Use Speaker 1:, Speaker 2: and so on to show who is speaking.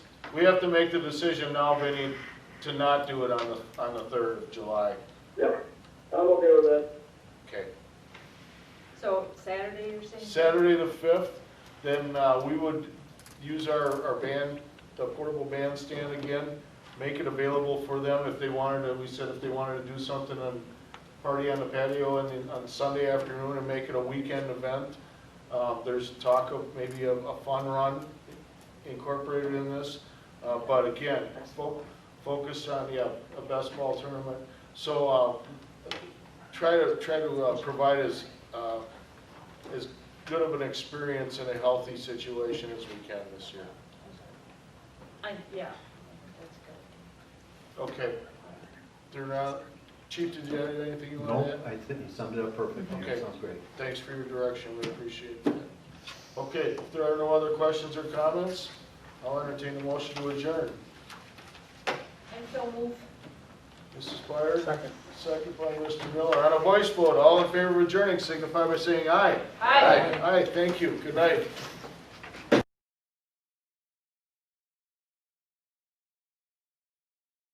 Speaker 1: we have to make the decision now, Vinnie, to not do it on the, on the third of July.
Speaker 2: Yep, I'm okay with that.
Speaker 1: Okay.
Speaker 3: So Saturday, you're saying?
Speaker 1: Saturday the fifth, then, uh, we would use our, our band, the portable bandstand again, make it available for them if they wanted to, we said if they wanted to do something on, party on the patio and then on Sunday afternoon and make it a weekend event. Uh, there's talk of maybe a, a fun run incorporated in this, uh, but again, fo- focused on, yeah, a best ball tournament. So, uh, try to, try to, uh, provide as, uh, as good of an experience in a healthy situation as we can this year.
Speaker 3: I, yeah, that's good.
Speaker 1: Okay. They're not, Chief, did you have anything you wanted to
Speaker 4: No,
Speaker 1: add?
Speaker 4: I think you summed it up perfectly. That
Speaker 1: Okay.
Speaker 4: sounds great.
Speaker 1: Thanks for your direction, we appreciate that. Okay, if there are no other questions or comments, I'll entertain a motion to adjourn.
Speaker 3: And so move.
Speaker 1: Mrs. Blyer? Second. Second by Mr. Miller. On a voice vote, all in favor of adjourning signify by saying aye.
Speaker 3: Aye.
Speaker 1: Aye, thank you, good night.